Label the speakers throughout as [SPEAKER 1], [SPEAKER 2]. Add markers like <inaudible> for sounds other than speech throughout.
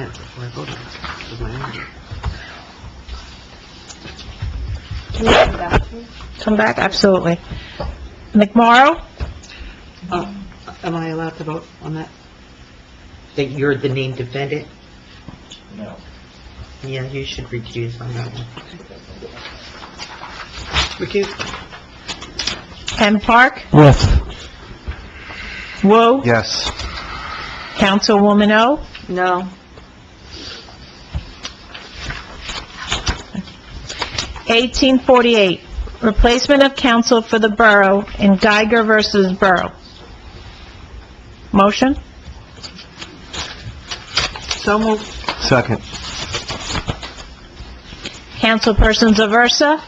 [SPEAKER 1] answer before I vote on it. This is my answer.
[SPEAKER 2] Can you come back, please?
[SPEAKER 3] Come back, absolutely. McMorro?
[SPEAKER 1] Oh, am I allowed to vote on that?
[SPEAKER 4] That you're the named defendant?
[SPEAKER 5] No.
[SPEAKER 4] Yeah, you should recuse on that one.
[SPEAKER 1] Recuse?
[SPEAKER 3] M. Park?
[SPEAKER 5] Yes.
[SPEAKER 3] Wu?
[SPEAKER 5] Yes.
[SPEAKER 3] Councilwoman O?
[SPEAKER 2] No.
[SPEAKER 3] Eighteen forty-eight, replacement of counsel for the borough in Geiger versus Borough. Motion?
[SPEAKER 1] So moved.
[SPEAKER 5] Second.
[SPEAKER 3] Councilperson Zaversa?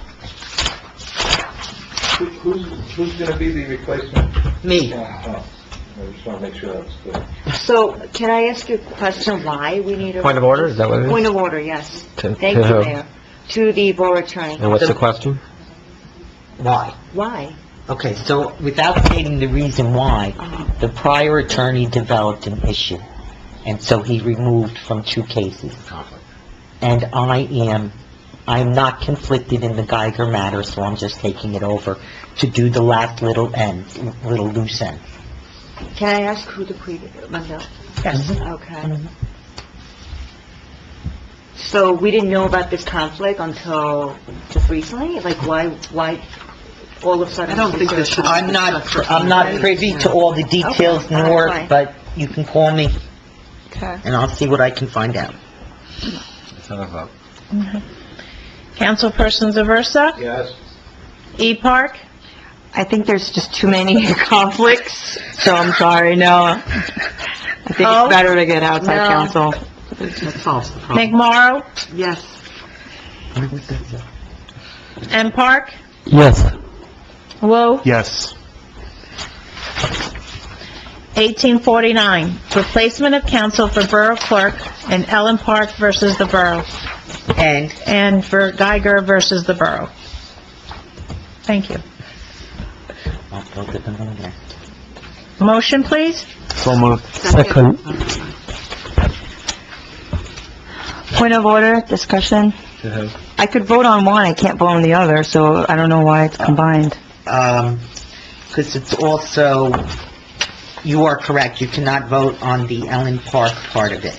[SPEAKER 6] Who- Who's, who's gonna be the replacement?
[SPEAKER 4] Me.
[SPEAKER 6] Yeah, oh, I just wanna make sure that's clear.
[SPEAKER 2] So can I ask you a question, why we need a...
[SPEAKER 7] Point of order, is that what it is?
[SPEAKER 2] Point of order, yes.
[SPEAKER 7] To-
[SPEAKER 2] Thank you,
[SPEAKER 7] to who?
[SPEAKER 2] Mayor. To the Borough Attorney.
[SPEAKER 7] And what's the question?
[SPEAKER 4] Why?
[SPEAKER 2] Why?
[SPEAKER 4] Okay, so without stating the reason why,
[SPEAKER 2] Uh-huh.
[SPEAKER 4] the prior attorney developed an issue, and so he removed from two cases. And I am, I am not conflicted in the Geiger matter, so I'm just taking it over to do the last little end, little loose end.
[SPEAKER 2] Can I ask who the previous, Mundell?
[SPEAKER 3] Yes.
[SPEAKER 2] Mm-hmm. Okay. So we didn't know about this conflict until just recently? Like, why, why all of a sudden?
[SPEAKER 1] I don't think this should...
[SPEAKER 4] I'm not, pr- I'm not privy to all the details,
[SPEAKER 2] Okay, all right,
[SPEAKER 4] nor,
[SPEAKER 2] fine.
[SPEAKER 4] but you can call me,
[SPEAKER 2] Okay.
[SPEAKER 4] and I'll see what I can find out.
[SPEAKER 3] Councilperson Zaversa?
[SPEAKER 6] Yes.
[SPEAKER 3] E. Park?
[SPEAKER 2] I think there's just too many <laughs> conflicts, so I'm sorry, no.
[SPEAKER 1] I think
[SPEAKER 3] Oh.
[SPEAKER 1] better to get outside
[SPEAKER 2] No.
[SPEAKER 1] That solves the problem.
[SPEAKER 3] McMorro?
[SPEAKER 1] Yes.
[SPEAKER 3] M. Park?
[SPEAKER 5] Yes.
[SPEAKER 3] Wu?
[SPEAKER 5] Yes.
[SPEAKER 3] 1849, replacement of counsel for Borough Clerk in Ellen Park versus the Borough,
[SPEAKER 4] And
[SPEAKER 3] and for Geiger versus the Borough. Thank you.
[SPEAKER 4] I'll go to the lawyer.
[SPEAKER 3] Motion, please?
[SPEAKER 5] So moved.
[SPEAKER 1] Second.
[SPEAKER 2] Point of order, discussion. I could vote on one, I can't vote on the other, so I don't know why it's combined.
[SPEAKER 4] um, because it's also, you are correct, you cannot vote on the Ellen Park part of it.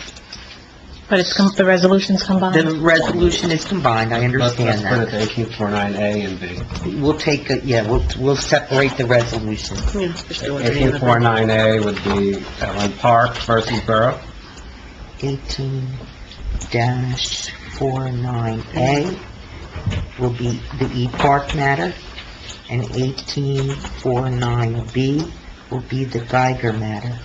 [SPEAKER 3] But it's, com- the resolution's
[SPEAKER 4] The
[SPEAKER 3] combined.
[SPEAKER 4] resolution is combined, I
[SPEAKER 7] Let's
[SPEAKER 4] understand
[SPEAKER 7] let's put it
[SPEAKER 4] that.
[SPEAKER 7] to 1849A and B.
[SPEAKER 4] We'll take, a- yeah, we'll, we'll separate the resolution.
[SPEAKER 1] Yes.
[SPEAKER 7] 1849A would be Ellen Park versus Borough.
[SPEAKER 4] Eighteen dash four nine A will be the E Park matter, and eighteen four nine B will be the Geiger matter.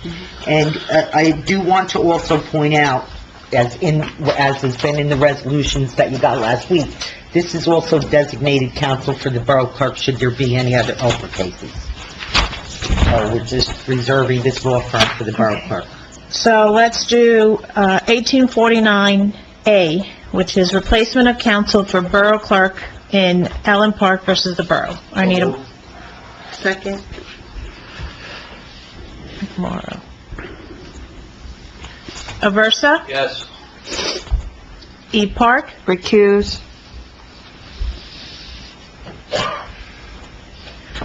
[SPEAKER 4] And uh, I do want to also point out, as in, as has been in the resolutions that you got last week, this is also designated counsel for the Borough Clerk should there be any other Oprah cases. So we're just reserving this law firm for the Borough Clerk.
[SPEAKER 3] So let's do uh, 1849A, which is replacement of counsel for Borough Clerk in Ellen Park versus the Borough. I need a
[SPEAKER 4] Second?
[SPEAKER 3] tomorrow. Aversa?
[SPEAKER 6] Yes.
[SPEAKER 3] E. Park?
[SPEAKER 2] Recuse.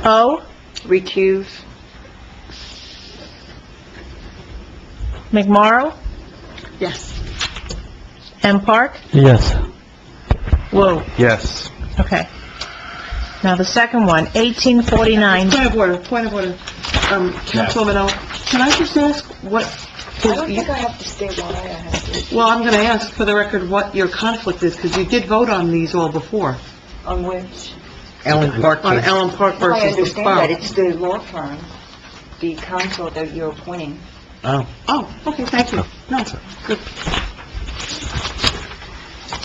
[SPEAKER 3] O.
[SPEAKER 2] Recuse.
[SPEAKER 3] McMorro? M. Park?
[SPEAKER 5] Yes.
[SPEAKER 3] Whoa,
[SPEAKER 5] Yes.
[SPEAKER 3] okay. Now the second one, 1849.
[SPEAKER 1] Point of order, point of order. Um, Councilwoman O, can I just ask what...
[SPEAKER 8] I don't think I have to state why I have to,
[SPEAKER 1] Well, I'm going to ask for the record what your conflict is, because you did vote on these all before,
[SPEAKER 8] on which,
[SPEAKER 4] Ellen Park
[SPEAKER 1] on
[SPEAKER 4] case.
[SPEAKER 1] Allen Park
[SPEAKER 8] I
[SPEAKER 1] versus the
[SPEAKER 8] understand that,
[SPEAKER 1] borough.
[SPEAKER 8] it's the law firm, the counsel that you're appointing.
[SPEAKER 4] Oh.
[SPEAKER 1] Oh, okay, thank you. No,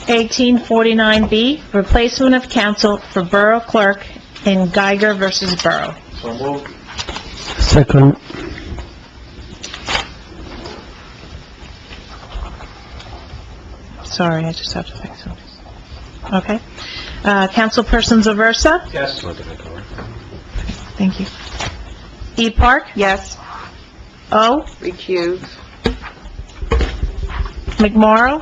[SPEAKER 3] 1849B, replacement of counsel for Borough Clerk in Geiger versus Borough.
[SPEAKER 6] So moved.
[SPEAKER 5] Second.
[SPEAKER 3] Sorry, I just have to fix something. Okay. Uh, Councilperson Zaversa?
[SPEAKER 6] Yes.
[SPEAKER 3] Thank you. E. Park?
[SPEAKER 2] Yes.
[SPEAKER 3] O.
[SPEAKER 2] Recuse.
[SPEAKER 3] McMorro?